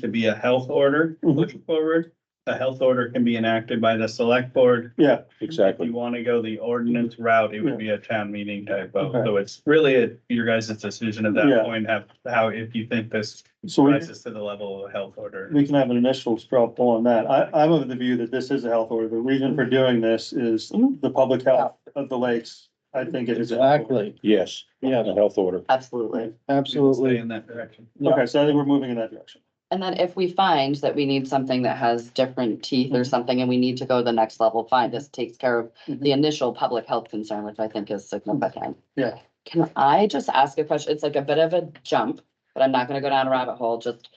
to be a health order Mhm. pushed forward. A health order can be enacted by the select board. Yeah, If Exactly. you want to go the ordinance route, it would be a town meeting type vote. Okay. So it's really a- your guys' decision at Yeah. that point, have, how, if you think this so we, rises to the level of a health order. we can have an initial straw poll on that. I, I'm of the view that this is a health order. The reason for doing this is Mm-hmm. the public health of the lakes. I think it is. a health order. Exactly, Yes, yeah, the health order. Absolutely. Stay absolutely. In that direction. Okay, so I think we're moving in that direction. And then if we find that we need something that has different teeth or something and we need to go to the next level, fine, this takes care of the initial public health concern, which I think is significant. Yeah. Can I just ask a question? It's like a bit of a jump, but I'm not gonna go down a rabbit hole, just,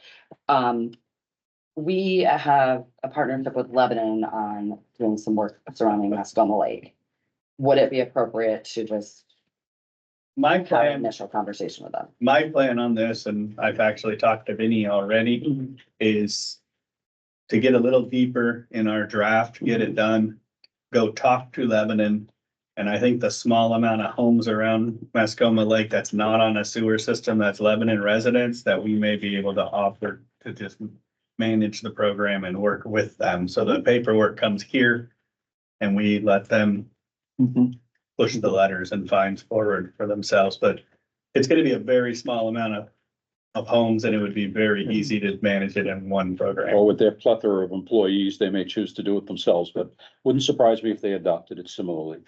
um. We have a partnership with Lebanon on doing some work surrounding Mascoma Lake. Would it be appropriate to just My have an plan, initial conversation with them? my plan on this, and I've actually talked to Vinny already, is to get a little deeper in our draft, get it done, go talk to Lebanon. And I think the small amount of homes around Mascoma Lake that's not on a sewer system, that's Lebanon residents, that we may be able to offer to just manage the program and work with them. So the paperwork comes here and we let them Mm-hmm. push the letters and fines forward for themselves, but it's gonna be a very small amount of of homes and it would be Mm-hmm. very easy to manage it in one program. Or with their plethora of employees, they may choose to do it themselves, but wouldn't surprise me if they adopted it similarly.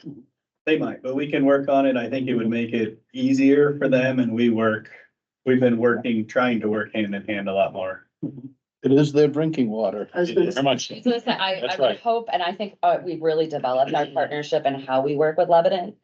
They might, but we can work on it. I think it would make it easier for them and we work, we've been working, trying to work hand in hand a lot more. It is their drinking water. I was gonna Very much. I was gonna say, I, I That's would right. hope, and I think, uh, we've really developed our partnership and how we work with Lebanon.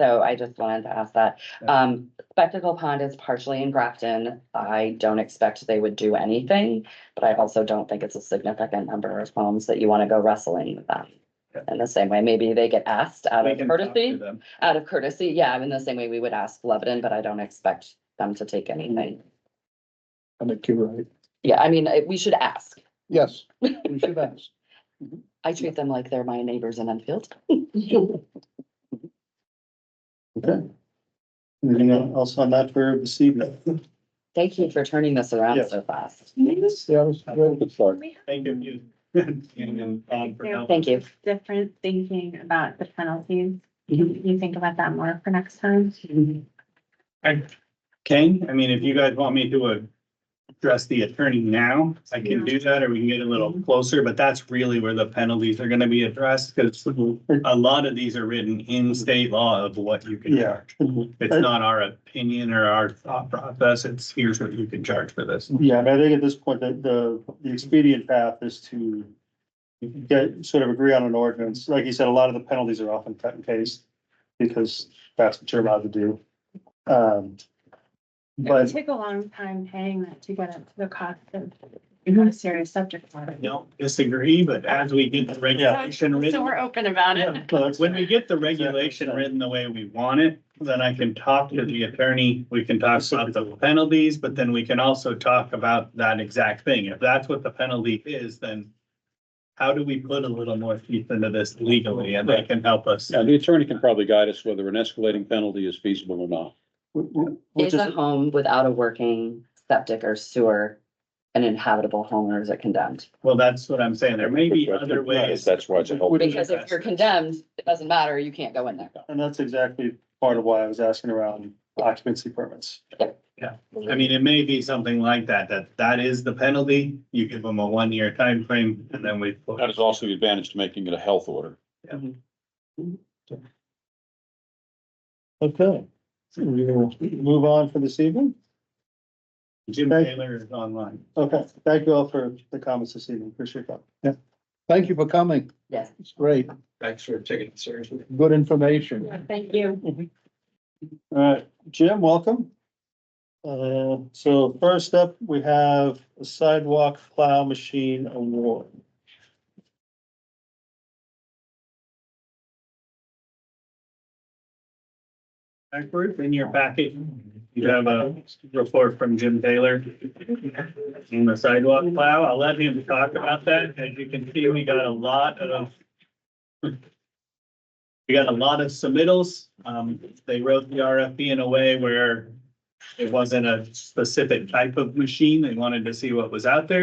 So I just wanted to ask that. Um, Spectacle Pond is partially in Grafton. I don't expect they would do anything, but I also don't think it's a significant number of homes that you wanna go wrestling with them. Yeah. In the same way, maybe they get asked out We of can talk to courtesy, them. out of courtesy, yeah, in the same way we would ask Lebanon, but I don't expect them to take anything. I think you're right. Yeah, I mean, uh, we should ask. Yes, we should ask. Mm-hmm. I treat them like they're my neighbors in Enfield. Okay. Anything else on that for this evening? Thank you for turning this around Yeah. so fast. Yeah, it was great. Good start. We have Thank you. And, um, for helping. Thank you. different thinking about the penalties. Can you think about that more for next time? Mm-hmm. I can, I mean, if you guys want me to address the attorney now, I can do that, or we can get a little closer, but that's really where the penalties are gonna be addressed, because a lot of these are written in state law of what you can Yeah. charge. It's not our opinion or our thought process, it's here's what you can charge for this. Yeah, and I think at this point, the, the, the expedient path is to get, sort of agree on an ordinance. Like you said, a lot of the penalties are often cut and paste because that's what you're allowed to do. Um, It but took a long time paying that to get up to the cost of a serious subject matter. Don't disagree, but as we get the regulation So written, we're open about it. No, that's- when we get the regulation written the way we want it, then I can talk to the attorney, we can talk about the penalties, but then we can also talk about that exact thing. If that's what the penalty is, then how do we put a little more teeth into this legally and they can help us? Yeah, the attorney can probably guide us whether an escalating penalty is feasible or not. we- we- we Is a just- home without a working septic or sewer an inhabitable home or is it condemned? Well, that's what I'm saying. There may be other ways. That's why it's a health. Would- Because if you're condemned, it doesn't matter, you can't go in there. And that's exactly part of why I was asking around occupancy permits. I mean, it may be something like that, that that is the penalty. You give them a one-year time frame, and then we. That is also the advantage to making it a health order. Okay. So we will move on for this evening. Jim Taylor is online. Okay, thank you all for the comments this evening. Appreciate that. Thank you for coming. Yes. It's great. Thanks for taking it seriously. Good information. Thank you. All right, Jim, welcome. Uh, so first up, we have a sidewalk plow machine award. Backward in your packet, you have a report from Jim Taylor on the sidewalk plow. I'll let him talk about that. As you can see, we got a lot of we got a lot of submittals. Um, they wrote the RFP in a way where it wasn't a specific type of machine. They wanted to see what was out there.